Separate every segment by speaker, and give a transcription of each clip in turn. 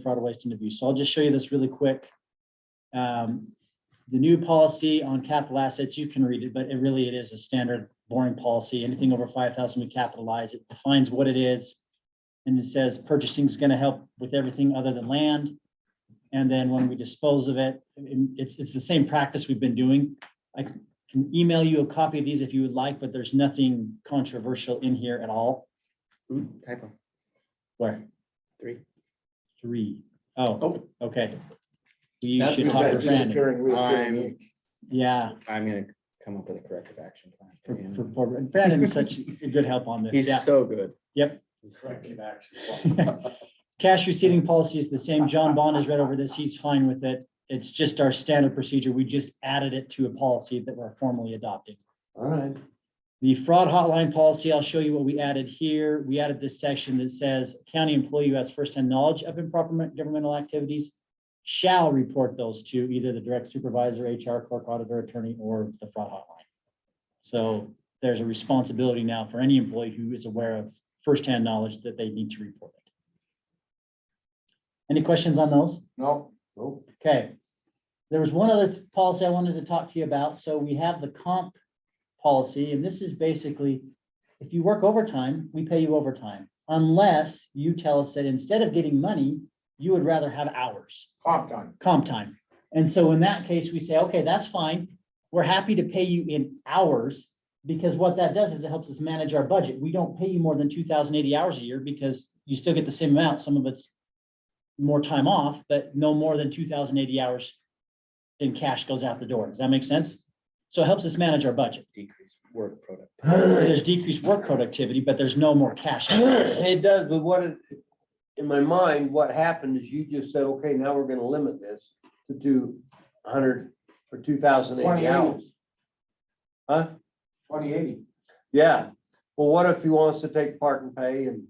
Speaker 1: fraud, waste and abuse. So I'll just show you this really quick. Um, The new policy on capital assets, you can read it, but it really, it is a standard boring policy. Anything over five thousand, we capitalize. It defines what it is. And it says purchasing is going to help with everything other than land. And then when we dispose of it, and it's, it's the same practice we've been doing. I can email you a copy of these if you would like, but there's nothing controversial in here at all.
Speaker 2: Ooh, Hmm, typo,
Speaker 1: Where?
Speaker 2: three.
Speaker 1: Three. Oh,
Speaker 2: Oh,
Speaker 1: okay. You
Speaker 2: That's
Speaker 1: should
Speaker 2: because
Speaker 1: talk
Speaker 2: that
Speaker 1: to Brandon.
Speaker 2: I'm,
Speaker 1: Yeah,
Speaker 2: I'm gonna come up with a corrective action
Speaker 1: for,
Speaker 2: plan. for
Speaker 1: for,
Speaker 2: him.
Speaker 1: for- and Brandon is such a good help on this. Yeah.
Speaker 2: He's so good.
Speaker 1: Yep.
Speaker 2: Corrective action.
Speaker 1: Cash receiving policy is the same. John Bond has read over this. He's fine with it. It's just our standard procedure. We just added it to a policy that we're formally adopting.
Speaker 3: All right.
Speaker 1: The fraud hotline policy, I'll show you what we added here. We added this section that says county employee who has firsthand knowledge of improper governmental activities shall report those to either the direct supervisor, HR clerk, auditor, attorney, or the fraud hotline. So there's a responsibility now for any employee who is aware of firsthand knowledge that they need to report it. Any questions on those?
Speaker 3: No. Nope.
Speaker 1: Okay. There was one other policy I wanted to talk to you about. So we have the comp policy, and this is basically, if you work overtime, we pay you overtime, unless you tell us that instead of getting money, you would rather have hours,
Speaker 3: Comp time.
Speaker 1: comp time. And so in that case, we say, okay, that's fine. We're happy to pay you in hours, because what that does is it helps us manage our budget. We don't pay you more than two thousand eighty hours a year, because you still get the same amount. Some of it's more time off, but no more than two thousand eighty hours in cash goes out the door. Does that make sense? So it helps us manage our budget.
Speaker 2: Decrease work product.
Speaker 1: There's decreased work productivity, but there's no more cash. out.
Speaker 3: It does, but what, it- in my mind, what happened is you just said, okay, now we're gonna limit this to two hundred or two thousand eighty hours. Huh?
Speaker 4: Twenty eighty.
Speaker 3: Yeah. Well, what if he wants to take part and pay and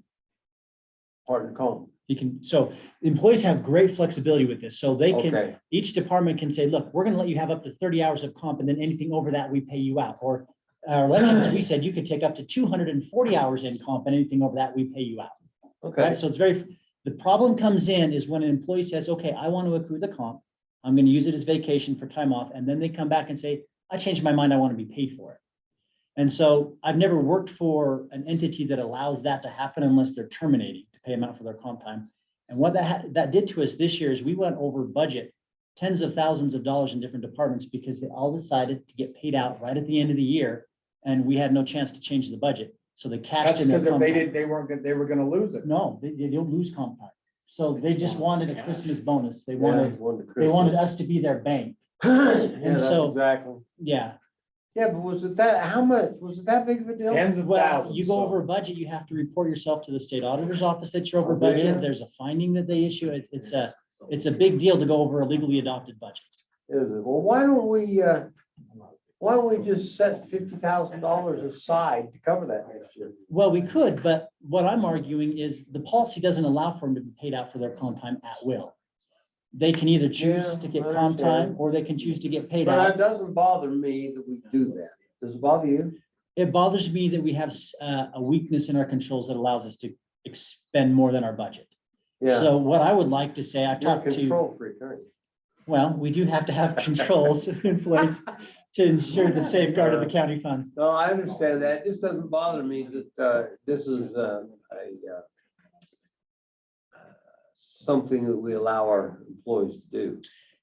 Speaker 3: part and comb?
Speaker 1: You can, so employees have great flexibility with this. So they can,
Speaker 3: Okay,
Speaker 1: each department can say, look, we're gonna let you have up to thirty hours of comp and then anything over that, we pay you out. Or our elections, we said you could take up to two hundred and forty hours in comp and anything over that, we pay you out.
Speaker 3: okay.
Speaker 1: Right? So it's very, the problem comes in is when an employee says, okay, I want to accrue the comp. I'm going to use it as vacation for time off. And then they come back and say, I changed my mind. I want to be paid for it. And so I've never worked for an entity that allows that to happen unless they're terminating to pay them out for their comp time. And what that, ha- that did to us this year is we went over budget tens of thousands of dollars in different departments because they all decided to get paid out right at the end of the year. And we had no chance to change the budget. So they cashed
Speaker 4: That's
Speaker 1: in their
Speaker 4: because if
Speaker 1: comp
Speaker 4: they
Speaker 1: time.
Speaker 4: didn't, they weren't, gonna- they were gonna lose it.
Speaker 1: No, they, they don't lose comp time. So they just wanted a Christmas bonus. They
Speaker 3: Yeah,
Speaker 1: wanted,
Speaker 3: one to
Speaker 1: they wanted
Speaker 3: Christmas.
Speaker 1: us to be their bank.
Speaker 3: Yeah, that's
Speaker 1: so-
Speaker 3: exactly.
Speaker 1: Yeah,
Speaker 3: Yeah, but was it that, how much? Was it that big of a deal?
Speaker 4: Tens of
Speaker 1: well,
Speaker 4: thousands.
Speaker 1: you go
Speaker 4: so-
Speaker 1: over budget, you have to report yourself to the state auditor's office that you're over
Speaker 3: Oh, do
Speaker 1: budget.
Speaker 3: you?
Speaker 1: There's a finding that they issue. It's, it's a, it's a big deal to go over a legally adopted budget.
Speaker 3: Is it? Well, why don't we, uh, why don't we just set fifty thousand dollars aside to cover that next year?
Speaker 1: Well, we could, but what I'm arguing is the policy doesn't allow for them to be paid out for their comp time at will. They can either choose
Speaker 3: Yeah,
Speaker 1: to get
Speaker 3: I
Speaker 1: comp time
Speaker 3: understand.
Speaker 1: or they can choose to get paid out.
Speaker 3: But it doesn't bother me that we do that. Does it bother you?
Speaker 1: it bothers me that we have s- uh, a weakness in our controls that allows us to expend more than our budget.
Speaker 3: Yeah,
Speaker 1: So what I would like to say, I've
Speaker 3: you're a
Speaker 1: talked to,
Speaker 3: control freak, aren't you?
Speaker 1: well, we do have to have controls in place to ensure the safeguard of the county funds.
Speaker 3: No, I understand that. It just doesn't bother me that, uh, this is, uh, a, uh, something that we allow our employees to do.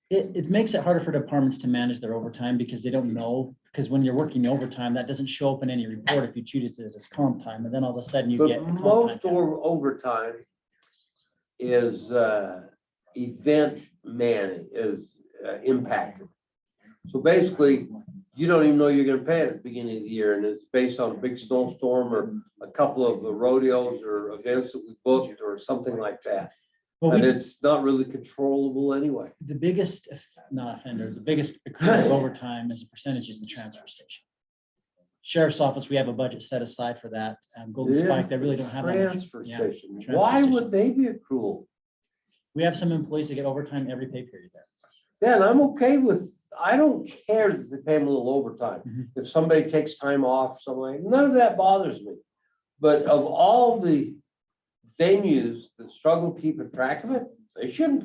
Speaker 1: It, it makes it harder for departments to manage their overtime because they don't know, because when you're working overtime, that doesn't show up in any report if you choose it as comp time, and then all of a sudden you get.
Speaker 3: But
Speaker 1: comp time
Speaker 3: most
Speaker 1: down.
Speaker 3: or overtime is, uh, event man, is uh, impacted. So basically, you don't even know you're gonna pay it at the beginning of the year, and it's based on a big snowstorm or a couple of the rodeos or events that we booked or something like that.
Speaker 1: But we
Speaker 3: And it's not really controllable anyway.
Speaker 1: the biggest, if not offender, the biggest accrual of overtime as a percentage is the transfer station. Sheriff's office, we have a budget set aside for that. Um, Golden Spike, they really don't have. that much.
Speaker 3: Transfer
Speaker 1: Yeah.
Speaker 3: station.
Speaker 1: transfer
Speaker 3: Why
Speaker 1: station.
Speaker 3: would they be accrual?
Speaker 1: We have some employees that get overtime every pay period there.
Speaker 3: Then I'm okay with, I don't care that they pay them a little overtime.
Speaker 1: Mhm.
Speaker 3: If somebody takes time off, something, none of that bothers me. But of all the venues that struggle keeping track of it, They shouldn't